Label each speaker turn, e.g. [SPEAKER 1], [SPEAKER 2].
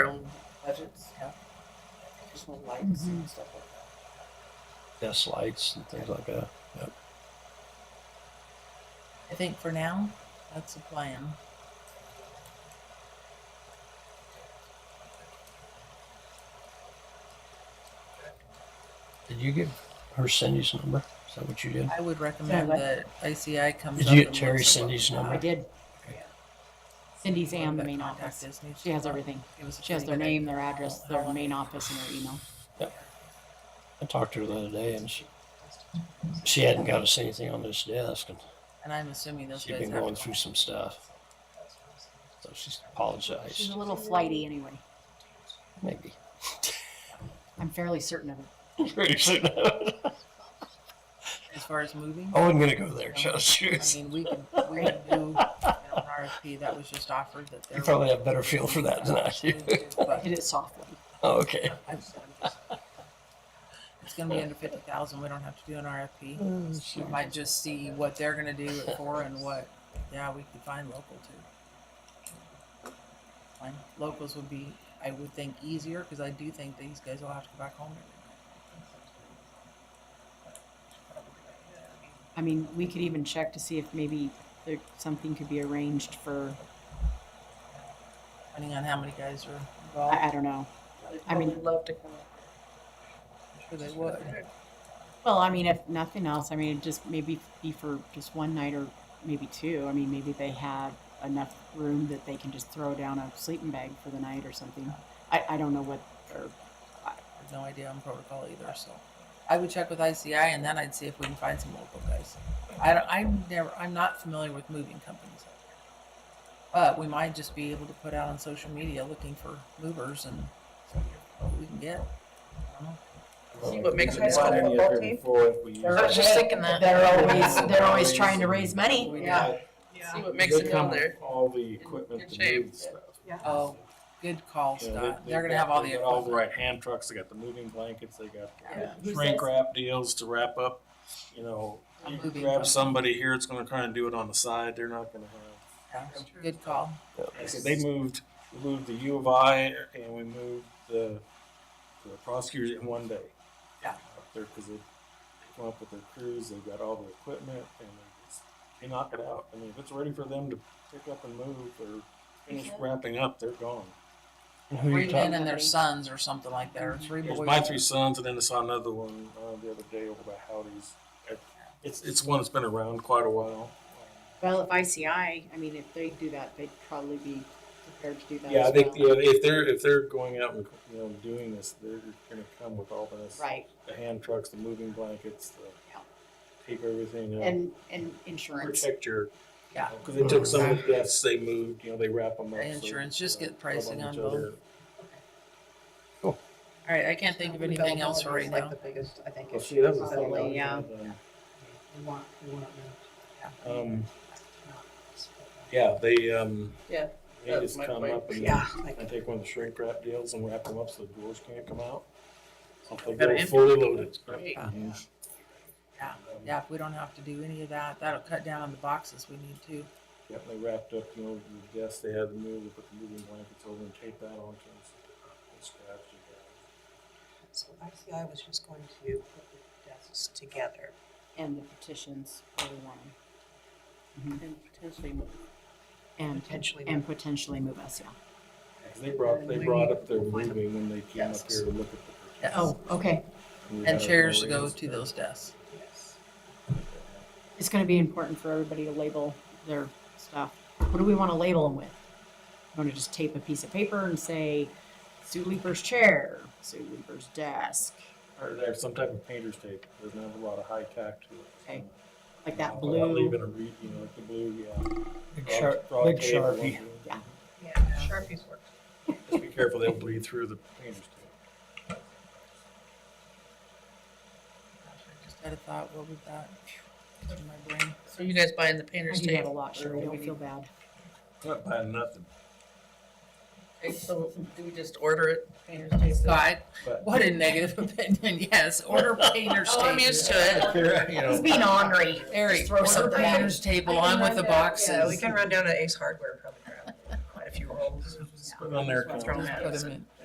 [SPEAKER 1] budgets have additional lights
[SPEAKER 2] Mm-hmm.
[SPEAKER 1] and stuff like that.
[SPEAKER 3] desk lights and things like that.
[SPEAKER 4] I think for now, that's the plan.
[SPEAKER 3] Did you give her Cindy's number? Is that what you did?
[SPEAKER 4] I would recommend
[SPEAKER 2] Yeah,
[SPEAKER 4] that ICI comes
[SPEAKER 3] Did
[SPEAKER 4] up
[SPEAKER 3] you get
[SPEAKER 4] and
[SPEAKER 3] Terry
[SPEAKER 4] looks at what
[SPEAKER 3] Cindy's
[SPEAKER 4] we
[SPEAKER 3] number?
[SPEAKER 2] Oh, I did.
[SPEAKER 3] Okay.
[SPEAKER 2] Cindy's and the
[SPEAKER 4] that
[SPEAKER 2] main
[SPEAKER 4] contact
[SPEAKER 2] office.
[SPEAKER 4] is.
[SPEAKER 2] She has everything.
[SPEAKER 4] Give us a
[SPEAKER 2] She has their
[SPEAKER 4] pretty
[SPEAKER 2] name, their address, their main office, and their email.
[SPEAKER 3] I talked to her the other day and she she hadn't got us anything on this desk and
[SPEAKER 4] good- And I'm assuming those
[SPEAKER 3] she'd
[SPEAKER 4] guys
[SPEAKER 3] been
[SPEAKER 4] have
[SPEAKER 3] going through some stuff. So she's apologized.
[SPEAKER 2] She's a little flighty anyway.
[SPEAKER 3] Maybe.
[SPEAKER 2] I'm fairly certain of it.
[SPEAKER 3] Pretty soon. I
[SPEAKER 4] as far as moving.
[SPEAKER 3] wasn't gonna go there, just
[SPEAKER 4] I
[SPEAKER 3] shoes.
[SPEAKER 4] mean, we can we can do you know, an RFP that was just offered that
[SPEAKER 3] You
[SPEAKER 4] there.
[SPEAKER 3] probably have better feel for that than I do.
[SPEAKER 4] But
[SPEAKER 2] Hit it softly.
[SPEAKER 3] Oh, okay.
[SPEAKER 4] I'm just- It's gonna be under fifty thousand, we don't have to do an RFP.
[SPEAKER 3] Oh,
[SPEAKER 2] Mm-hmm.
[SPEAKER 3] shoot.
[SPEAKER 4] We might just see what they're gonna do it for and what, yeah, we could find local too. Fine, locals would be, I would think easier, cause I do think these guys will have to go back home.
[SPEAKER 2] I mean, we could even check to see if maybe there, something could be arranged for,
[SPEAKER 4] Depending on how many guys are
[SPEAKER 2] I,
[SPEAKER 4] involved,
[SPEAKER 2] I don't know. I mean-
[SPEAKER 1] I'd love to come.
[SPEAKER 4] I'm sure they would.
[SPEAKER 2] Well, I mean, if nothing else, I mean, it just maybe be for just one night or maybe two. I mean, maybe they have enough room that they can just throw down a sleeping bag for the night or something. I, I don't know what their
[SPEAKER 4] I have no idea on protocol either, so. I would check with ICI and then I'd see if we can find some local guys. I don't, I'm never, I'm not familiar with moving companies. out here. But we might just be able to put out on social media looking for movers and what we can get. I don't know.
[SPEAKER 1] See what makes
[SPEAKER 5] High
[SPEAKER 1] high
[SPEAKER 5] school
[SPEAKER 1] school
[SPEAKER 5] football
[SPEAKER 1] football
[SPEAKER 5] team?
[SPEAKER 1] team?
[SPEAKER 5] I was
[SPEAKER 1] just
[SPEAKER 2] thinking that they're always they're always trying to raise money.
[SPEAKER 4] We
[SPEAKER 1] Yeah.
[SPEAKER 4] do.
[SPEAKER 1] See what makes it come there.
[SPEAKER 5] All the equipment
[SPEAKER 1] Good
[SPEAKER 5] to
[SPEAKER 1] shape.
[SPEAKER 5] move stuff.
[SPEAKER 4] Oh, good call,
[SPEAKER 5] You know,
[SPEAKER 4] Scott.
[SPEAKER 5] they-
[SPEAKER 4] They're gonna
[SPEAKER 5] they've
[SPEAKER 4] have
[SPEAKER 5] got-
[SPEAKER 4] all
[SPEAKER 5] they
[SPEAKER 4] the
[SPEAKER 5] got All the
[SPEAKER 4] equipment.
[SPEAKER 5] right hand trucks, they got the moving blankets, they got
[SPEAKER 4] Yeah.
[SPEAKER 5] the shrink wrap deals to wrap up, you know. You
[SPEAKER 4] Moving
[SPEAKER 5] grab
[SPEAKER 4] company.
[SPEAKER 5] somebody here, it's gonna kinda do it on the side, they're not gonna have.
[SPEAKER 4] Yeah, Good call.
[SPEAKER 5] I said, They moved, we moved the U of I and we moved the, the prosecutors in one day.
[SPEAKER 4] Yeah.
[SPEAKER 5] Up there, cause they come up with their crews, they've got all the equipment and they just, they knock it out. I mean, if it's ready for them to pick up and move or finish wrapping up, they're gone.
[SPEAKER 3] And Who
[SPEAKER 4] Three
[SPEAKER 3] you talking?
[SPEAKER 4] men and their sons or something like that, or three
[SPEAKER 5] There's
[SPEAKER 4] boys.
[SPEAKER 5] my three sons, and then I saw another one uh, the other day over by Howdy's. It's it's one that's been around quite a while.
[SPEAKER 2] Well, if ICI, I mean, if they do that, they'd probably be prepared to do that.
[SPEAKER 5] Yeah, I
[SPEAKER 2] as
[SPEAKER 5] think
[SPEAKER 2] well.
[SPEAKER 5] you know, if they're if they're going out and you know doing this, they're going to come with all this,
[SPEAKER 2] Right,
[SPEAKER 5] the hand trucks, the moving blankets, the
[SPEAKER 2] Yeah.
[SPEAKER 5] tape everything up,
[SPEAKER 2] and and insurance.
[SPEAKER 5] protect your
[SPEAKER 4] Yeah.
[SPEAKER 5] Because they took some of the deaths, they moved, you know, they wrap them up. so,
[SPEAKER 4] Insurance, just
[SPEAKER 5] you know,
[SPEAKER 4] get pricing
[SPEAKER 5] rub
[SPEAKER 4] on
[SPEAKER 5] each
[SPEAKER 4] both.
[SPEAKER 5] other.
[SPEAKER 4] All right, I can't think of anything else right
[SPEAKER 1] Like
[SPEAKER 4] now.
[SPEAKER 1] the biggest, I think.
[SPEAKER 5] Well,
[SPEAKER 1] issue
[SPEAKER 5] see, that was the
[SPEAKER 1] is
[SPEAKER 5] thing.
[SPEAKER 2] Probably,
[SPEAKER 5] I
[SPEAKER 2] yeah.
[SPEAKER 5] was gonna,
[SPEAKER 1] we want- we want them
[SPEAKER 5] um, Um,
[SPEAKER 1] to-
[SPEAKER 5] yeah, they um,
[SPEAKER 1] Yeah,
[SPEAKER 5] they
[SPEAKER 1] that's
[SPEAKER 5] just
[SPEAKER 1] my
[SPEAKER 5] come
[SPEAKER 1] point.
[SPEAKER 5] up and
[SPEAKER 1] Yeah, like-
[SPEAKER 5] I take one of the shrink wrap deals and wrap them up so the doors can't come out. So if they
[SPEAKER 1] Better
[SPEAKER 5] go
[SPEAKER 1] empty.
[SPEAKER 5] fully loaded.
[SPEAKER 1] Great.
[SPEAKER 5] Mhm.
[SPEAKER 4] Yeah, yeah, if we don't have to do any of that, that'll cut down on the boxes we need to.
[SPEAKER 5] Yep, they wrapped up, you know, the guests they had to move, they put the moving blankets over and tape that on. so it's- it's scratched and
[SPEAKER 1] So ICI was just going to put the desks together.
[SPEAKER 2] And the petitions for the one.
[SPEAKER 1] And potentially.
[SPEAKER 2] Mm-hmm. And
[SPEAKER 1] Potentially
[SPEAKER 2] And potentially move us, yeah.
[SPEAKER 5] bad. 'Cause They brought, they brought up their moving when they came up
[SPEAKER 1] Yes.
[SPEAKER 5] here to look at the.
[SPEAKER 4] Yeah,
[SPEAKER 2] Oh, okay.
[SPEAKER 5] we
[SPEAKER 4] And
[SPEAKER 5] had
[SPEAKER 4] chairs to go
[SPEAKER 5] arrays
[SPEAKER 4] to
[SPEAKER 5] there.
[SPEAKER 4] those desks.
[SPEAKER 1] Yes.
[SPEAKER 2] It's gonna be important for everybody to label their stuff. What do we wanna label them with? Want to just tape a piece of paper and say, Sue Leaper's chair, Sue Leaper's desk,
[SPEAKER 5] Or they have some type of painter's tape, doesn't have a lot of high tack to it. Um,
[SPEAKER 2] Okay. like that
[SPEAKER 5] But I'll leave
[SPEAKER 2] blue.
[SPEAKER 5] it a read, you know, like the blue, yeah.
[SPEAKER 3] Big
[SPEAKER 5] Frog-
[SPEAKER 3] sharp,
[SPEAKER 5] frog
[SPEAKER 3] big
[SPEAKER 5] tape, one
[SPEAKER 3] sharpie.
[SPEAKER 5] blue.
[SPEAKER 2] Yeah.
[SPEAKER 1] Yeah, Sharpies work.
[SPEAKER 5] Just be careful, they'll bleed through the painter's tape.
[SPEAKER 4] Just had a thought, what was that? In my brain.
[SPEAKER 1] So you guys buying the
[SPEAKER 2] I
[SPEAKER 1] painters
[SPEAKER 2] do that a lot, Sherry, don't feel bad.
[SPEAKER 5] Not buying nothing,
[SPEAKER 1] So do we just order it? Painters
[SPEAKER 4] God,
[SPEAKER 5] but.
[SPEAKER 4] what a negative opinion, yes, order painter's
[SPEAKER 1] Oh, I'm used
[SPEAKER 4] table.
[SPEAKER 1] to it.
[SPEAKER 5] You know,
[SPEAKER 2] being ornery.
[SPEAKER 4] Eric,
[SPEAKER 2] throw
[SPEAKER 4] order
[SPEAKER 2] something at
[SPEAKER 4] painter's table on with the
[SPEAKER 1] Yeah, we
[SPEAKER 4] boxes.
[SPEAKER 1] can run down to Ace Hardware, and probably grab quite a few rolls.
[SPEAKER 5] put it on there.
[SPEAKER 1] Throw 'em at
[SPEAKER 4] Just put
[SPEAKER 1] us.
[SPEAKER 4] 'em in.